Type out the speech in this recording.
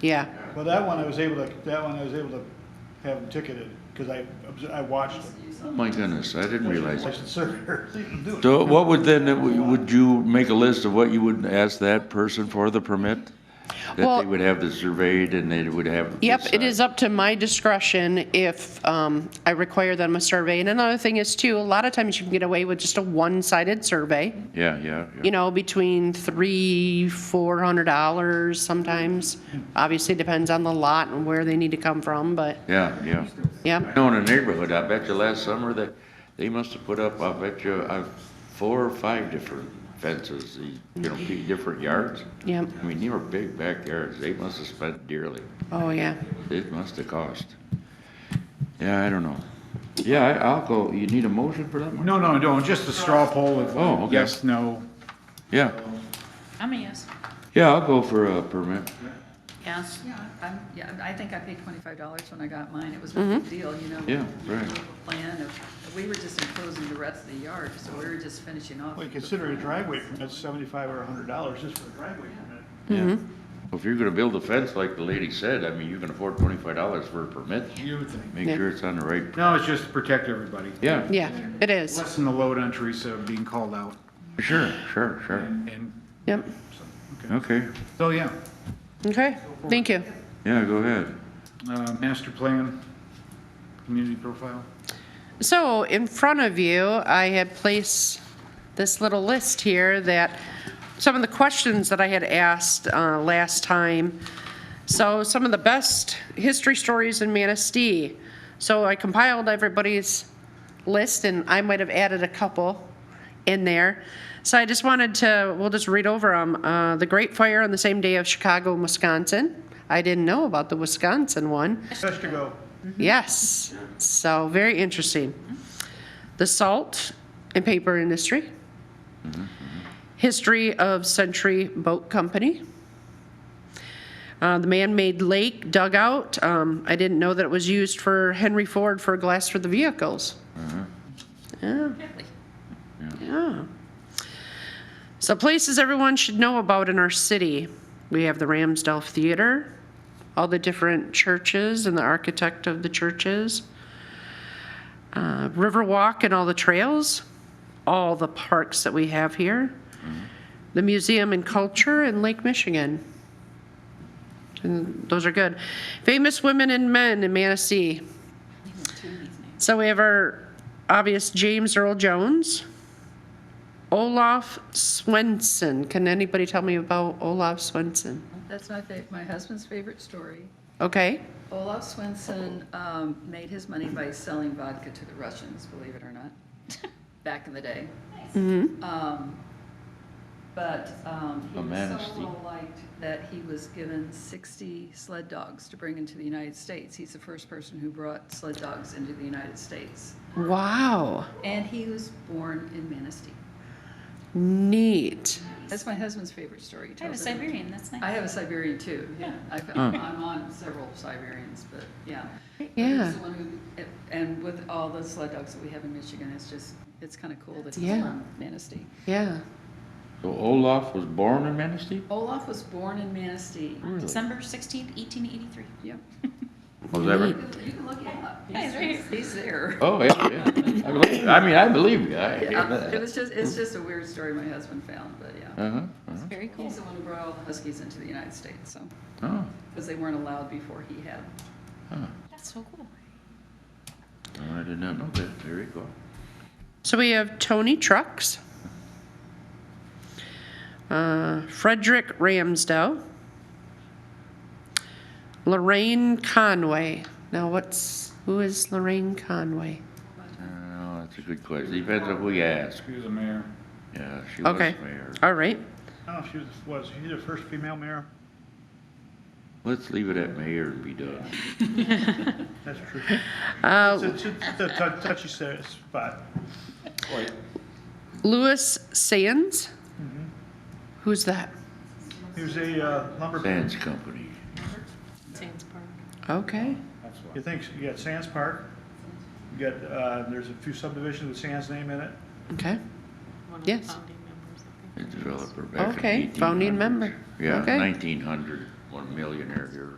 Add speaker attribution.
Speaker 1: Yeah,
Speaker 2: Well, that one I was able to, that one I was able to have them ticketed, because I, obs- I watched it.
Speaker 3: Oh My goodness, I didn't realize.
Speaker 2: I said, sir, see them do it.
Speaker 3: So what would then, would you make a list of what you would ask that person for the permit? That
Speaker 1: Well-
Speaker 3: they would have this surveyed and they would have. uh,
Speaker 1: yep, it is up to my discretion if um, I require them a survey. And another thing is too, a lot of times you can get away with just a one-sided survey,
Speaker 3: Yeah, yeah,
Speaker 1: you
Speaker 3: yeah.
Speaker 1: know, between three, four hundred dollars sometimes. Obviously depends on the lot and where they need to come from, but,
Speaker 3: Yeah, yeah. I
Speaker 1: yep,
Speaker 3: know in a neighborhood, I bet you last summer that they must have put up, I bet you, uh, four or five different fences, you know, pe- different yards.
Speaker 1: yep,
Speaker 3: I mean, they were big backyards. They must have spent dearly.
Speaker 1: oh, yeah.
Speaker 3: It must have cost. Yeah, I don't know. Yeah, I- I'll go. You need a motion for that one?
Speaker 4: No, no, no, just a straw poll
Speaker 3: Oh,
Speaker 4: of
Speaker 3: okay.
Speaker 4: yes, no.
Speaker 3: Yeah,
Speaker 5: I'm a yes.
Speaker 3: yeah, I'll go for a permit.
Speaker 5: Yes.
Speaker 6: Yeah, I'm, yeah, I think I paid twenty-five dollars when I got mine, it was a big deal, you know?
Speaker 3: Yeah,
Speaker 6: we
Speaker 3: right.
Speaker 6: have a Plan of, we were just enclosing the rest of the yard, so we were just finishing off.
Speaker 2: Well, you consider a driveway permit seventy-five or a hundred dollars just for a driveway permit.
Speaker 3: Yeah. If you're gonna build a fence like the lady said, I mean, you can afford twenty-five dollars for a permit.
Speaker 4: You would think.
Speaker 3: Make
Speaker 1: Yeah.
Speaker 3: sure it's on the right,
Speaker 4: No, it's just to protect everybody.
Speaker 3: yeah,
Speaker 1: Yeah, it is,
Speaker 4: Lessen the load on Teresa of being called out
Speaker 3: sure, sure, sure.
Speaker 4: and,
Speaker 1: yep,
Speaker 3: Okay,
Speaker 4: so, yeah.
Speaker 1: okay, thank you.
Speaker 3: yeah, go ahead.
Speaker 4: Uh, master plan, community profile.
Speaker 1: So in front of you, I had placed this little list here that some of the questions that I had asked uh, last time. So some of the best history stories in Manistee. So I compiled everybody's list and I might have added a couple in there. So I just wanted to, we'll just read over them. Uh, the Great Fire on the same day of Chicago, Wisconsin. I didn't know about the Wisconsin one.
Speaker 2: Just to go,
Speaker 1: Mm-hmm. Yes. So very interesting. The salt and paper industry. History of Century Boat Company. Uh, the man-made lake dugout. Um, I didn't know that it was used for Henry Ford for glass for the vehicles. Yeah. Yeah. So places everyone should know about in our city. We have the Ramsdale Theater, all the different churches and the architect of the churches, uh, Riverwalk and all the trails, all the parks that we have here, the Museum and Culture in Lake Michigan. And those are good. Famous women and men in Manistee. So we have our obvious James Earl Jones. Olaf Swenson. Can anybody tell me about Olaf Swenson?
Speaker 6: That's my fa, my husband's favorite story.
Speaker 1: Okay.
Speaker 6: Olaf Swenson, um, made his money by selling vodka to the Russians, believe it or not, back in the day. Um, But, um, he
Speaker 3: A man of
Speaker 6: was so
Speaker 3: steel.
Speaker 6: well-liked that he was given sixty sled dogs to bring into the United States. He's the first person who brought sled dogs into the United States.
Speaker 1: Wow.
Speaker 6: And he was born in Manistee.
Speaker 1: Neat.
Speaker 6: That's my husband's favorite story. he
Speaker 5: I have a
Speaker 6: tells everyone.
Speaker 5: Siberian, that's
Speaker 6: I
Speaker 5: nice.
Speaker 6: have a Siberian too, yeah. I've, I'm on several Siberians, but yeah. But he's
Speaker 1: Yeah.
Speaker 6: the one who- And with all the sled dogs that we have in Michigan, it's just, it's kind of cool that he's
Speaker 1: Yeah.
Speaker 6: from Manistee.
Speaker 1: Yeah.
Speaker 3: So Olaf was born in Manistee?
Speaker 6: Olaf was born in Manistee.
Speaker 3: Really?
Speaker 5: December sixteenth, eighteen eighty-three.
Speaker 6: Yep.
Speaker 3: Was that right?
Speaker 6: You can look him up.
Speaker 5: Yeah, he's right
Speaker 6: He's, he's there.
Speaker 3: Oh, yeah, yeah. I believe- I mean, I believe you. I hear
Speaker 6: Yeah,
Speaker 3: that.
Speaker 6: It was just, it's just a weird story my husband found, but yeah.
Speaker 3: Uh-huh, uh-huh.
Speaker 5: Very cool.
Speaker 6: He's the one who brought all the huskies into the United States, so,
Speaker 3: Oh,
Speaker 6: because they weren't allowed before he had them.
Speaker 5: That's so cool.
Speaker 3: no, I did not know that. There you go.
Speaker 1: So we have Tony Trucks, uh, Frederick Ramsdell, Lorraine Conway. Now, what's who is Lorraine Conway?
Speaker 3: Oh, that's a good question. Depends on who you ask.
Speaker 4: She was a mayor.
Speaker 3: Yeah, she was
Speaker 1: Okay.
Speaker 3: mayor.
Speaker 1: All right.
Speaker 2: I don't know if she was, was she the first female mayor?
Speaker 3: Let's leave it at mayor and be done.
Speaker 2: That's true.
Speaker 1: Uh,
Speaker 2: It's, it's it's a tou- touchy sa- spot.
Speaker 1: Louis Sands. Who's that?
Speaker 2: He was a uh, lumber,
Speaker 3: Sands Company.
Speaker 5: Sands Park.
Speaker 1: Okay.
Speaker 4: That's why.
Speaker 2: you think, you got Sands Park, you got, uh, there's a few subdivisions with Sands name in it.
Speaker 1: Okay. Yes.
Speaker 3: A developer back in
Speaker 1: Okay, founding
Speaker 3: 1800s.
Speaker 1: member.
Speaker 3: Yeah,
Speaker 1: Okay.
Speaker 3: nineteen hundred. one millionaire here.